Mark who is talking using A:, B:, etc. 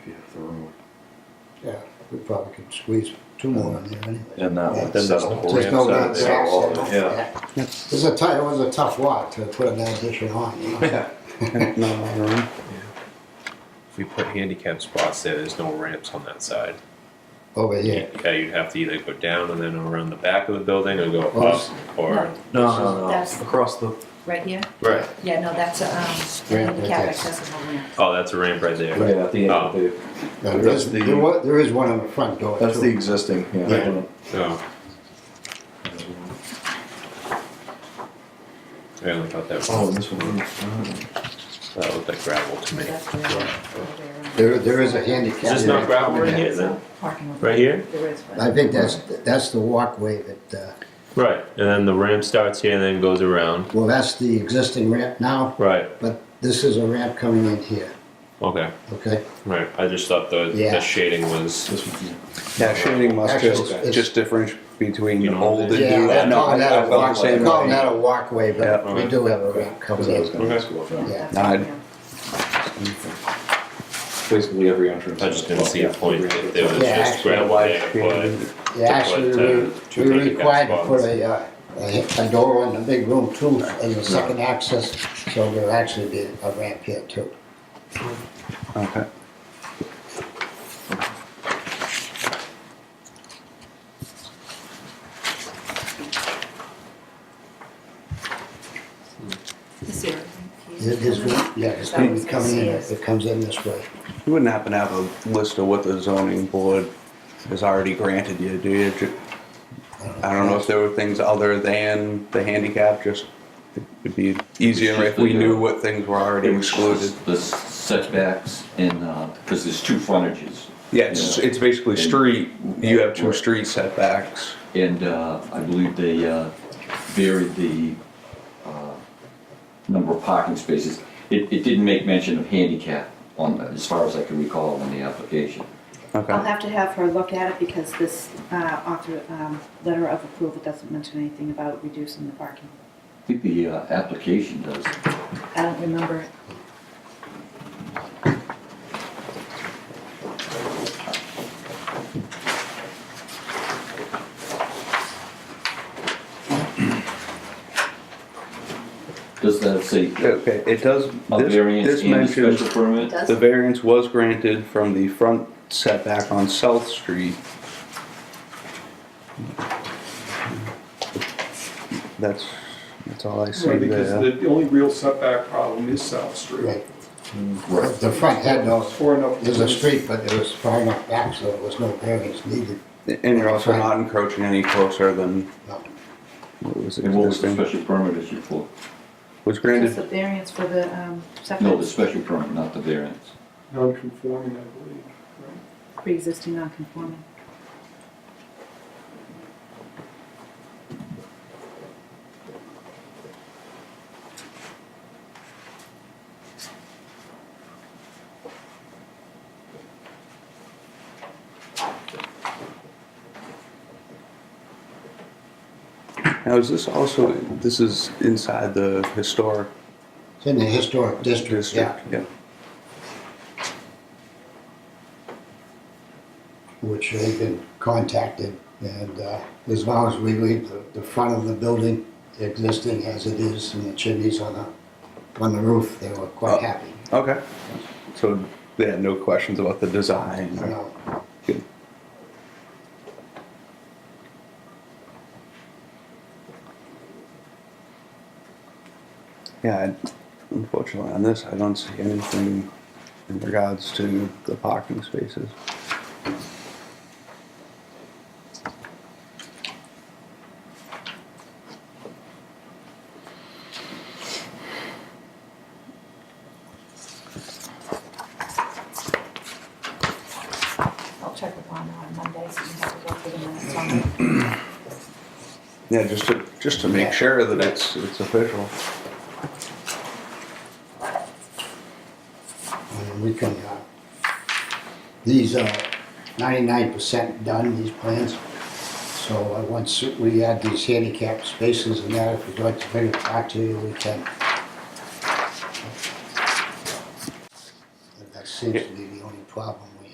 A: room.
B: Yeah, we probably could squeeze two more in there anyway.
C: And that
B: Yeah.
C: would
D: Then
C: set
D: there's
C: a
D: no-
C: whole
B: There's no
C: ramp
B: downstairs.
C: set all over, yeah.
B: This is a tight, it was a tough lot to put an addition on, you know?
D: Not on our own.
E: If we put handicap spots there, there's no ramps on that side.
B: over here.
E: Yeah, you'd have to either go down and then around the back of the building or go
B: Well,
E: up or.
C: No, no, no,
F: That's-
C: across the,
F: Right here?
E: Right.
F: Yeah, no, that's a, um,
B: Ramp,
F: handicap
B: okay.
F: accessible ramp.
E: Oh, that's a ramp right there. Oh,
C: yeah, at the end of the,
B: Now, There
C: That's
B: is,
C: the-
B: there wa- there is one on the front door
C: that's the
B: too.
C: existing, yeah.
B: Yeah.
E: Oh, I only thought that
C: Oh,
E: was,
C: this one.
E: that looked like gravel to me.
F: That's where- where-
B: There, there is a handicap.
E: Is this not gravel right here
F: That's
E: then?
F: a Parking lot.
E: Right here?
F: There is one.
B: I think that's, that's the walkway that, uh,
E: Right, and then the ramp starts here and then goes around.
B: well, that's the existing ramp now,
E: Right,
B: but this is a ramp coming in here,
E: okay,
B: okay?
E: right. I just thought the,
B: Yeah.
E: the shading was,
C: This one,
D: Yeah, shading must
B: Actually,
D: just,
B: it's-
D: just differentiate between
E: You know,
D: old and new.
B: Yeah,
D: I
B: I'm
D: know, I
B: calling that a
D: felt the
B: walkway,
D: same
B: I'm calling
D: way.
B: that a walkway, but
D: Yeah.
B: we do have a ramp coming
C: because I was
B: in.
C: gonna ask about that.
B: Yeah,
F: That's-
D: I'd-
F: yeah.
C: Basically every entrance.
E: I just didn't see a point if there was
B: Yeah,
E: just
B: actually,
E: gravel there,
D: Yeah.
E: but.
B: Yeah, actually, we,
E: To put, uh,
B: we
E: two
B: were
E: handicap
B: required to put
E: spots.
B: a, uh, a, a door in the big room too, as a second access, so there'll actually be a ramp here too.
D: Okay.
F: Is there?
B: There- There's, one- yeah, there's gonna be coming in, if it comes in this way.
D: You wouldn't happen to have a list of what the zoning board has already granted you, do you? Ju- I don't know if there were things other than the handicap, just, it'd be easier if we knew what things were already
G: It was
D: excluded.
G: The setbacks in, uh, because there's two frontages.
D: Yeah, it's, it's basically street, you have two
G: Right.
D: street setbacks.
G: And, uh, I believe they, uh, varied the, uh, number of parking spaces. It, it didn't make mention of handicap on, as far as I can recall on the application.
F: I'll
D: Okay,
F: have to have her look at it because this, uh, author, um, letter of approval doesn't mention anything about reducing the parking.
G: I think the, uh, application does.
F: I don't remember. it.
G: Does that say
D: okay, it does,
G: a
D: this,
G: variance
D: this
G: and a
D: mentions,
G: special permit?
F: Does
D: the variance was granted from the front setback on South Street. That's, that's all I see
H: Right,
D: there.
H: because the only real setback problem is South Street.
B: Right,
G: Right.
B: the front had no,
H: Far enough.
B: there's a street, but it was far enough back, so there was no variance needed.
D: And you're also not encroaching any closer than
B: No.
D: what was
G: And what was the
D: existing.
G: special permit issued for?
D: Was
F: Just
D: granted,
F: the variance for the, um,
G: No, the
F: setbacks,
G: special permit, not the variance.
H: Non-conforming, I believe, right?
F: pre-existing non-conforming.
D: now is this also, this is inside the historic
B: It's in the historic district, yeah,
D: district? Yeah.
B: which they've been contacted. And uh, as long as we leave the, the front of the building existing as it is and the chimneys on the, on the roof, they were
D: Oh.
B: quite happy.
D: Okay. So they had no questions about the design?
B: You know,
D: Good. Yeah, I- unfortunately on this, I don't see anything in regards to the parking spaces.
F: I'll check with Lana on Monday, so you have to go through the minutes on it.
D: Yeah, just to, just to
B: Yeah.
D: make sure that it's, it's official.
B: And we can, uh, these are ninety-nine percent done, these plans. So uh, once we add these handicap spaces and that, if you'd like to bring it back to you, we can. And That seems to be the only problem